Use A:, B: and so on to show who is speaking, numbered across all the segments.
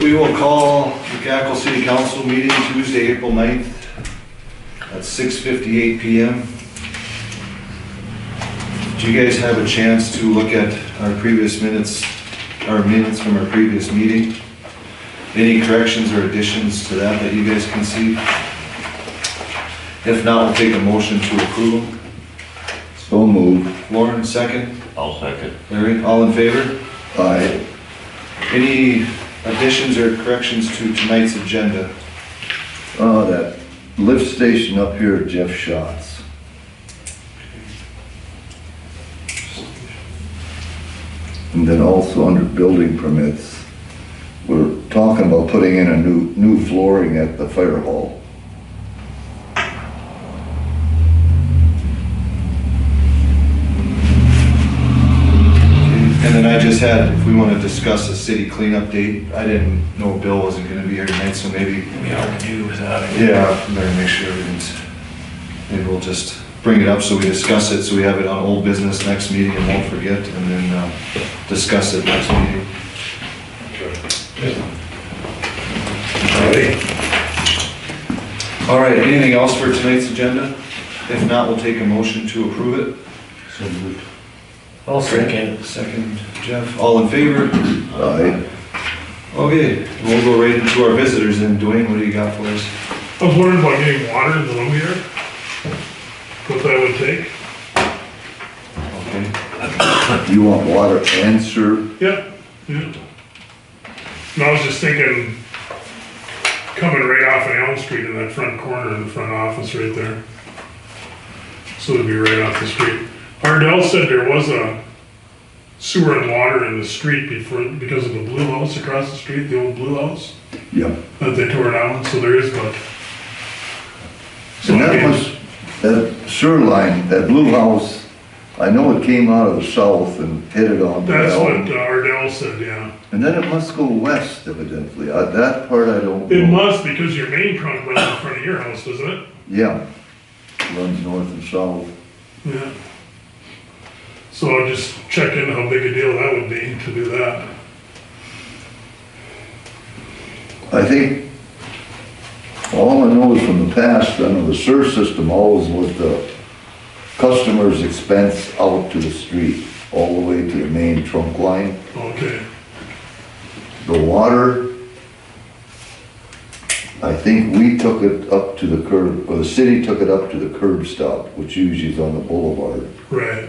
A: we will call the Cackle City Council meeting Tuesday, April 9th at 6:58 PM. Do you guys have a chance to look at our previous minutes, our minutes from our previous meeting? Any corrections or additions to that that you guys can see? If not, we'll take a motion to approve.
B: So moved.
A: Lauren, second.
C: I'll second.
A: Larry, all in favor?
B: Aye.
A: Any additions or corrections to tonight's agenda?
B: Oh, that lift station up here at Jeff Schatz. And then also under building permits, we're talking about putting in a new, new flooring at the fire hall.
A: And then I just had, if we want to discuss a city cleanup date, I didn't know Bill wasn't going to be here tonight, so maybe,
D: We are due without it.
A: yeah, better make sure everything's, maybe we'll just bring it up so we discuss it, so we have it on old business next meeting and won't forget, and then uh, discuss it next meeting. All right, anything else for tonight's agenda? If not, we'll take a motion to approve it.
D: I'll second.
A: Second, Jeff, all in favor?
B: Aye.
A: Okay, we'll go right into our visitors then. Dwayne, what do you got for us?
E: I was wondering about getting water in the lumberyard, what that would take.
A: Okay.
B: You want water and sewer?
E: Yep. Yep. And I was just thinking, coming right off of Elm Street in that front corner, in the front office right there. So it'd be right off the street. Ardell said there was a sewer and water in the street before, because of the blue house across the street, the old blue house,
B: Yep.
E: that they tore down, so there is but. So
B: And
E: I
B: that
E: mean,
B: was, that sewer line, that blue house, I know it came out of the south and headed on. the
E: That's
B: Allen.
E: what uh, Ardell said, yeah.
B: And then it must go west evidently. Uh, that part I don't
E: It
B: know.
E: must, because your main trunk runs in front of your house, doesn't it?
B: Yeah. Runs north and south.
E: Yeah. So I'll just check in how big a deal that would be to do that.
B: I think all I know is from the past, I know the sewer system always was the customer's expense out to the street, all the way to the main trunk line.
E: Okay,
B: The water, I think we took it up to the curb, or the city took it up to the curb stop, which usually is on the boulevard.
E: right.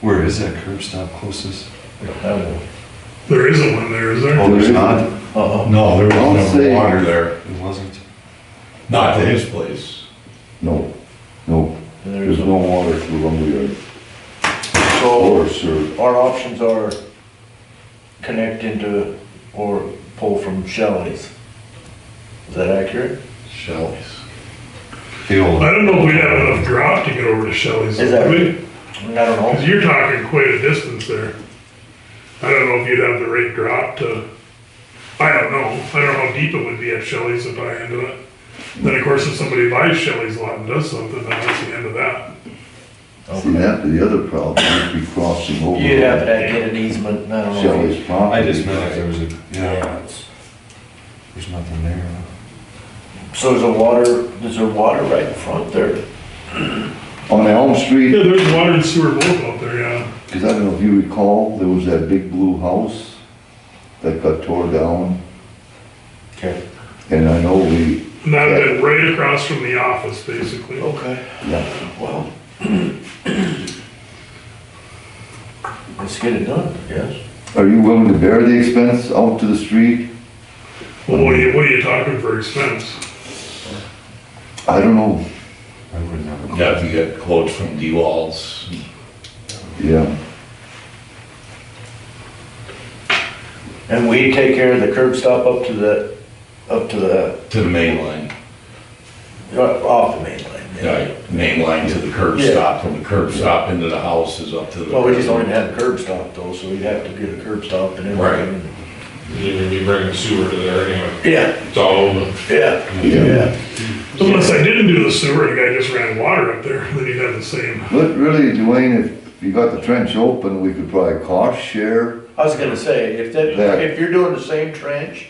A: Where is that curb stop closest?
E: There isn't one there, is there?
A: Oh, there's not?
F: No, there
B: I'll
F: was
B: say-
F: no water there.
A: It wasn't.
F: Not to his place.
B: No, no, there's no water through lumberyard.
D: So
B: Or sewer.
D: our options are connect into or pull from Shelley's. Is that accurate?
F: Shelley's.
A: The old.
E: I don't know if we'd have enough drop to get over to Shelley's.
D: Is that-
E: would we?
D: I mean, I don't know.
E: Cause you're talking quite a distance there. I don't know if you'd have the right drop to, I don't know. I don't know how deep it would be at Shelley's if I ended it. Then, of course, if somebody buys Shelley's lot and does something, then that's the end of that.
B: See, that, the other problem would be crossing over.
D: You'd have to get an easement, and I don't know. if you-
B: Shelley's property.
A: I just meant if there was a, yeah,
F: it's.
A: there's nothing there. huh?
D: So there's a water, there's a water right in front there.
B: On Elm
E: Yeah,
B: Street,
E: there's water and sewer both out there, yeah.
B: because I don't know if you recall, there was that big blue house that got tore down,
D: Okay.
B: and I know we,
E: And that would been right across from the office, basically.
D: Okay.
B: yeah,
D: Well. Let's get it done, I guess.
B: are you willing to bear the expense out to the street?
E: Well, what are you, what are you talking for expense?
B: I don't know,
A: I would never.
F: Yeah, you get quotes from D Walls.
B: yeah,
D: And we take care of the curb stop up to the, up to the,
F: To the main line.
D: uh, off the main line.
F: Yeah, main line to the curb
D: Yeah.
F: stop, from the curb stop into the house is up to the.
D: Well, we just don't even have a curb stop though, so we'd have to get a curb stop and everything.
G: Even you bring the sewer to there anyway,
D: Yeah,
G: it's all over.
D: yeah,
B: yeah.
D: yeah.
E: Unless I didn't do the sewer, the guy just ran water up there, then you'd have the same.
B: But really, Dwayne, if you got the trench open, we could probably cost share
D: I was gonna say, if that,
B: Yeah.
D: if you're doing the same trench,